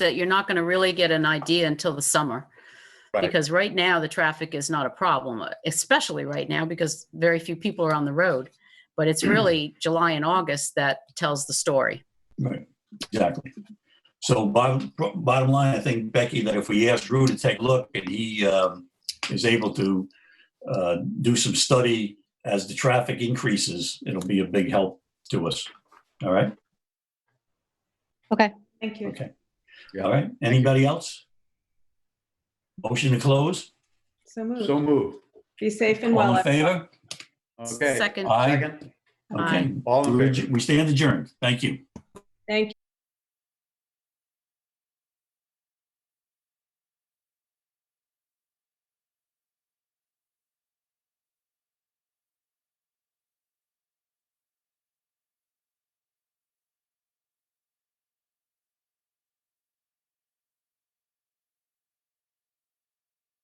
that you're not going to really get an idea until the summer. Right. Because right now, the traffic is not a problem, especially right now, because very few people are on the road. But it's really July and August that tells the story. Right, exactly. So bottom, bottom line, I think, Becky, that if we ask Drew to take a look and he um, is able to uh, do some study as the traffic increases, it'll be a big help to us. All right? Thank you. Okay. Yeah. All right. Anybody else? Motion to close? So moved. So moved. Be safe and All well. in favor? Okay. Second, Aye. Second. Aye. Okay. All in We're favor. adj- We stand adjourned. Thank you.